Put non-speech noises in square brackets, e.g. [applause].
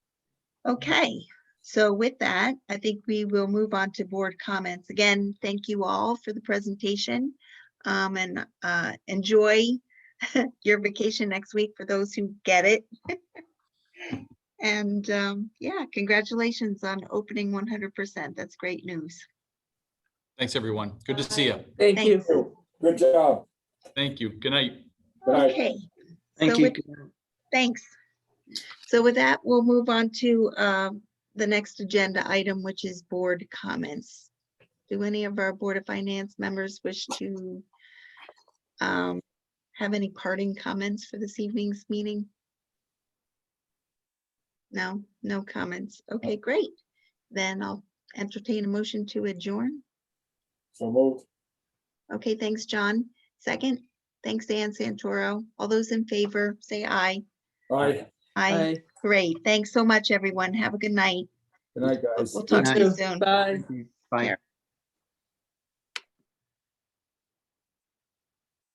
Okay, so with that, I think we will move on to board comments. Again, thank you all for the presentation. Um, and, uh, enjoy [laughs] your vacation next week for those who get it. [laughs] And, um, yeah, congratulations on opening one hundred percent. That's great news. Thanks, everyone. Good to see you. Thank you. Thanks. Good job. Thank you. Good night. Good night. Okay. Thank So you. with- Thanks. So with that, we'll move on to uh, the next agenda item, which is board comments. Do any of our Board of Finance members wish to um, have any parting comments for this evening's meeting? No, no comments. Okay, great. Then I'll entertain a motion to adjourn. So moved. Okay, thanks, John. Second, thanks, Dan Santoro. All those in favor, say aye. Bye. Aye. Bye. Great. Thanks so much, everyone. Have a good night. Good night, guys. We'll talk to you soon. Bye. Bye.